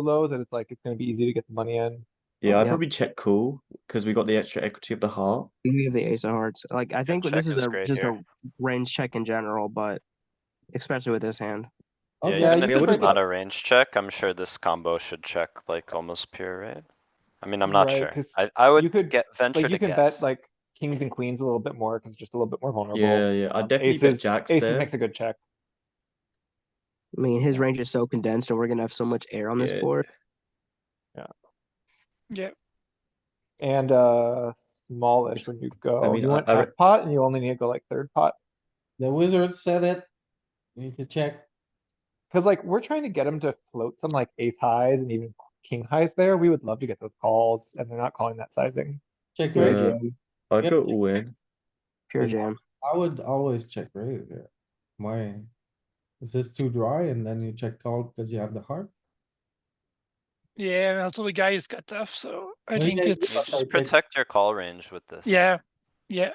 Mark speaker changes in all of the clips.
Speaker 1: low that it's like, it's gonna be easy to get the money in.
Speaker 2: Yeah, I'd
Speaker 3: Yeah.
Speaker 2: probably check call because we got the extra equity of the heart.
Speaker 3: We have the ace of hearts. Like I think this
Speaker 4: check
Speaker 3: is,
Speaker 4: is
Speaker 3: a
Speaker 4: great
Speaker 3: just
Speaker 4: here.
Speaker 3: a range check in general, but especially with this hand.
Speaker 1: Oh,
Speaker 4: Yeah,
Speaker 1: yeah,
Speaker 4: even
Speaker 1: you
Speaker 4: if
Speaker 1: could break
Speaker 4: it's
Speaker 1: it.
Speaker 4: not a range check, I'm sure this combo should check like almost pure, right? I mean, I'm not
Speaker 1: Right,
Speaker 4: sure.
Speaker 1: 'cause
Speaker 4: I, I
Speaker 1: you could-
Speaker 4: would get, venture
Speaker 1: Like,
Speaker 4: to
Speaker 1: you can bet
Speaker 4: guess.
Speaker 1: like kings and queens a little bit more, cause it's just a little bit more vulnerable.
Speaker 2: Yeah, yeah. I
Speaker 1: Um,
Speaker 2: definitely bet
Speaker 1: aces-
Speaker 2: jacks
Speaker 1: Aces
Speaker 2: there.
Speaker 1: makes a good check.
Speaker 3: I mean, his range is so condensed, and we're gonna have so much air on this
Speaker 2: Yeah.
Speaker 3: board.
Speaker 1: And, uh, smallish when you go,
Speaker 2: mean,
Speaker 1: you
Speaker 2: I-
Speaker 1: want
Speaker 2: I re-
Speaker 1: half pot and you only need to go like third pot.
Speaker 5: The wizard said it. Need to check.
Speaker 1: Cause like, we're trying to get him to float some like ace highs and even king highs there. We would love to get those calls and they're not calling that sizing.
Speaker 5: Check
Speaker 2: Yeah.
Speaker 5: raise.
Speaker 2: I'd
Speaker 5: Yep.
Speaker 2: go all in.
Speaker 3: Pure
Speaker 5: Yeah.
Speaker 3: jam.
Speaker 5: I would always check raise there. Why? Is this too dry and then you check call because you have the heart?
Speaker 6: Yeah, and also the guy is cut off, so I
Speaker 5: Well,
Speaker 6: think
Speaker 5: yeah,
Speaker 6: it's,
Speaker 5: but I
Speaker 4: Just
Speaker 5: think-
Speaker 4: protect your call range with this.
Speaker 6: yeah, yeah,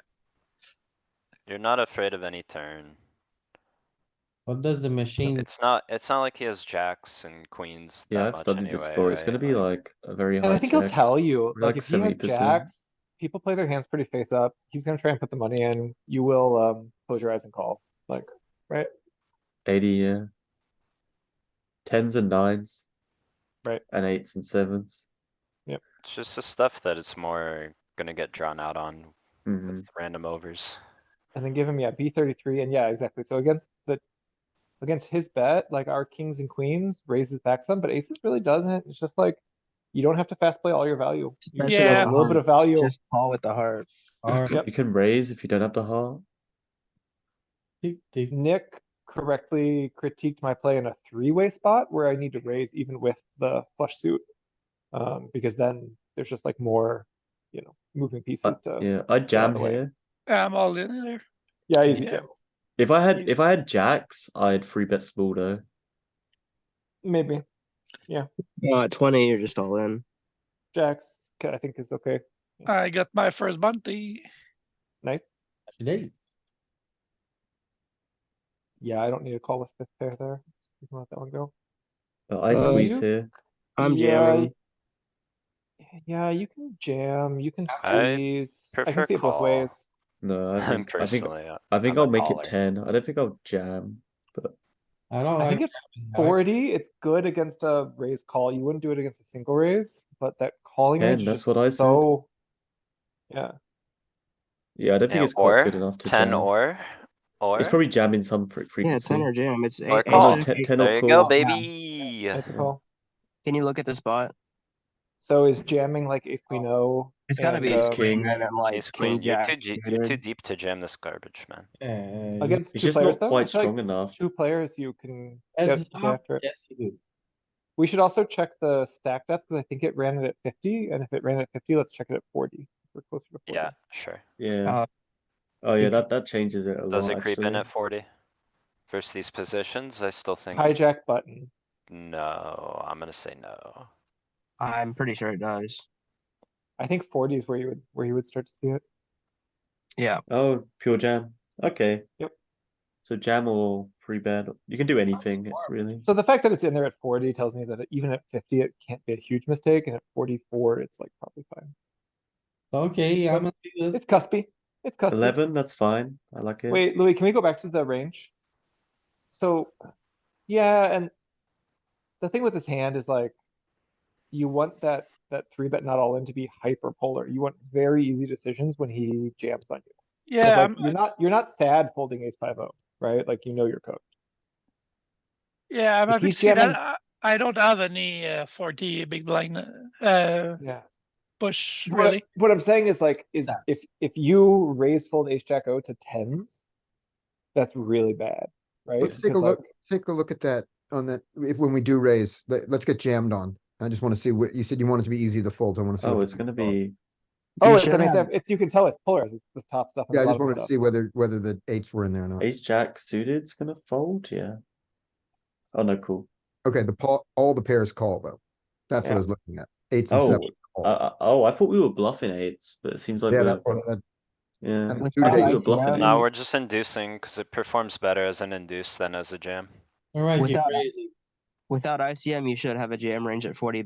Speaker 4: You're not afraid of any turn.
Speaker 5: What does the machine?
Speaker 4: It's not, it's not like he has jacks and queens
Speaker 2: Yeah,
Speaker 4: that
Speaker 2: I've
Speaker 4: much
Speaker 2: studied
Speaker 4: anyway,
Speaker 2: this sport. It's gonna
Speaker 4: right?
Speaker 2: be like a very
Speaker 1: And I
Speaker 2: high
Speaker 1: think he'll
Speaker 2: check.
Speaker 1: tell you, like,
Speaker 2: Like
Speaker 1: if he has
Speaker 2: 70%.
Speaker 1: jacks, people play their hands pretty face up. He's gonna try and put the money in. You will, um, close your eyes and call. Like,
Speaker 2: Eighty, yeah. Tens and nines.
Speaker 1: Right.
Speaker 2: And eights and sevens.
Speaker 4: It's just the stuff that it's more gonna get drawn out on
Speaker 2: Mhm.
Speaker 4: with random overs.
Speaker 1: and then give him, yeah, B thirty-three, and yeah, exactly. So against the, against his bet, like our kings and queens raises back some, but aces really doesn't. It's just like, you don't have to fast play all your value. You can
Speaker 3: Especially
Speaker 1: take like,
Speaker 6: Yeah.
Speaker 1: A little bit of value.
Speaker 3: Just call with the heart.
Speaker 5: Or
Speaker 1: Yep.
Speaker 2: You can raise if you don't have the heart.
Speaker 5: tick, tick.
Speaker 1: Nick correctly critiqued my play in a three-way spot where I need to raise even with the flush suit. Um, because then there's just like more, you know, moving pieces
Speaker 2: Uh,
Speaker 1: to,
Speaker 2: yeah, I jam
Speaker 1: the way.
Speaker 2: here.
Speaker 6: I'm all in there.
Speaker 1: yeah, easy
Speaker 6: Yeah.
Speaker 1: jam.
Speaker 2: If I had
Speaker 6: Yeah.
Speaker 2: if I had jacks, I'd free bet small though.
Speaker 1: Maybe.
Speaker 3: No, Uh, at twenty, you're just all in.
Speaker 1: Jacks, ca- I think is okay.
Speaker 6: I got my first bounty.
Speaker 1: Nice.
Speaker 5: Today.
Speaker 1: Yeah, I don't need to call with fifth pair there. You can let that one go.
Speaker 2: But I
Speaker 3: Uh,
Speaker 2: squeeze
Speaker 1: you-
Speaker 2: here.
Speaker 3: I'm
Speaker 1: Yeah,
Speaker 3: jamming.
Speaker 1: Yeah, you can jam, you can
Speaker 4: I
Speaker 1: squeeze. I can
Speaker 4: prefer
Speaker 1: see it both
Speaker 4: call.
Speaker 1: ways.
Speaker 2: No, I think I think
Speaker 4: Personally, I-
Speaker 2: I think
Speaker 4: I'm a
Speaker 2: I'll make
Speaker 4: caller.
Speaker 2: it ten. I don't think I'll jam.
Speaker 5: I don't
Speaker 1: Oh, I think
Speaker 5: like.
Speaker 1: at forty, it's good against a raise call. You wouldn't do it against a single raise, but that calling
Speaker 2: Ten,
Speaker 1: range is
Speaker 2: that's
Speaker 1: just
Speaker 2: what I said.
Speaker 1: so. Yeah,
Speaker 2: Yeah, I don't think
Speaker 4: Yeah,
Speaker 2: it's quite
Speaker 4: or
Speaker 2: good enough to
Speaker 4: ten
Speaker 2: jam.
Speaker 4: or, or,
Speaker 2: It's probably jamming some fre-
Speaker 3: Yeah,
Speaker 2: frequency.
Speaker 3: ten or jam. It's a-
Speaker 4: Or
Speaker 3: ace
Speaker 4: call.
Speaker 3: jack-
Speaker 2: Ten- ten or
Speaker 4: there you
Speaker 2: call.
Speaker 4: go,
Speaker 3: Yeah.
Speaker 4: baby.
Speaker 1: that's a
Speaker 2: Yeah.
Speaker 1: call.
Speaker 3: Can you look at the spot?
Speaker 1: So is jamming like ace queen O?
Speaker 3: It's gotta
Speaker 1: and,
Speaker 3: be
Speaker 2: Ace
Speaker 3: ace
Speaker 1: um,
Speaker 2: king.
Speaker 3: king, and then like
Speaker 4: Ace queen,
Speaker 3: king
Speaker 4: you're
Speaker 3: jack.
Speaker 4: too, g- you're too
Speaker 3: suited.
Speaker 4: deep to jam this garbage, man.
Speaker 5: uh,
Speaker 1: Against
Speaker 2: It's
Speaker 1: two
Speaker 2: just not
Speaker 1: players though, I
Speaker 2: quite
Speaker 1: feel like
Speaker 2: strong enough.
Speaker 1: two players you can get
Speaker 5: heads
Speaker 1: get
Speaker 5: up,
Speaker 1: after it.
Speaker 5: Yes, you do.
Speaker 1: We should also check the stack depth, because I think it ran it at fifty, and if it ran at fifty, let's check it at forty. We're closer to forty.
Speaker 4: Yeah, sure.
Speaker 2: Yeah.
Speaker 3: Uh,
Speaker 2: Oh yeah,
Speaker 3: it-
Speaker 2: that that changes it a lot.
Speaker 4: Does it creep in
Speaker 2: actually.
Speaker 4: at forty? Versus these positions, I still think,
Speaker 1: Hijack button.
Speaker 4: no, I'm gonna say no.
Speaker 3: I'm pretty sure it does.
Speaker 1: I think forty is where you would, where you would start to see it.
Speaker 3: Yeah.
Speaker 2: Oh, pure jam. Okay.
Speaker 1: Yep.
Speaker 2: So jam or free bet. You can do anything really.
Speaker 1: So the fact that it's in there at forty tells me that even at fifty, it can't be a huge mistake, and at forty-four, it's like probably fine.
Speaker 5: Okay, I'm. gonna do this.
Speaker 1: It's cuspy. It's cuspy.
Speaker 2: Eleven, that's fine. I like it.
Speaker 1: Wait, Louis, can we go back to the range? So, yeah, and the thing with this hand is like, you want that, that three bet not all in to be hyperpolar. You want very easy decisions when he jams on you. 'Cause,
Speaker 6: Yeah,
Speaker 1: like,
Speaker 6: I'm,
Speaker 1: You're not, you're not sad folding ace five oh, right? Like, you know your code.
Speaker 6: yeah, I'm
Speaker 1: if
Speaker 6: happy
Speaker 1: you
Speaker 6: to see
Speaker 1: jamming-
Speaker 6: that. I- I don't have any uh, 40 big blind uh, uh,
Speaker 1: Yeah.
Speaker 6: push
Speaker 1: What,
Speaker 6: really.
Speaker 1: I- what I'm saying is like, is
Speaker 5: Yeah.
Speaker 1: if, if you raise fold ace jack O to tens, that's really bad, right?
Speaker 7: Let's take a
Speaker 1: Because,
Speaker 7: look,
Speaker 1: like,
Speaker 7: take a look at that on that, if, when we do raise, let, us get jammed on. I just wanna see what, you said you want it to be easy to fold, I wanna see.
Speaker 2: Oh,
Speaker 7: what
Speaker 2: it's
Speaker 7: the-
Speaker 2: gonna be
Speaker 1: Oh,
Speaker 3: You
Speaker 1: it's,
Speaker 3: should
Speaker 1: I mean, it's,
Speaker 3: have-
Speaker 1: it's, you can tell it's polarized. It's the top stuff. and
Speaker 7: Yeah, I
Speaker 1: the
Speaker 7: just
Speaker 1: bottom
Speaker 7: wanted to
Speaker 1: stuff.
Speaker 7: see whether, whether the eights were in there or not.
Speaker 2: ace jack suited. It's gonna fold. Yeah. Oh no, cool.
Speaker 7: Okay, the paul, all the pairs call though. That's what I
Speaker 1: Yeah.
Speaker 7: was looking at, eights and
Speaker 2: Oh,
Speaker 7: seven.
Speaker 2: I, I- oh, I thought we were bluffing eights, but it seems like
Speaker 7: Yeah,
Speaker 2: we're,
Speaker 7: that's what, that-
Speaker 2: yeah.
Speaker 7: and the
Speaker 3: With
Speaker 7: suited
Speaker 2: I
Speaker 3: that,
Speaker 2: think
Speaker 7: ace-
Speaker 2: we were bluffing
Speaker 1: Yeah.
Speaker 4: No,
Speaker 2: eights.
Speaker 4: we're just inducing, cause it performs better as an induce than as a jam.
Speaker 5: Alright, you're
Speaker 3: Without-
Speaker 5: raising.
Speaker 3: Without ICM, you should have a jam range at 40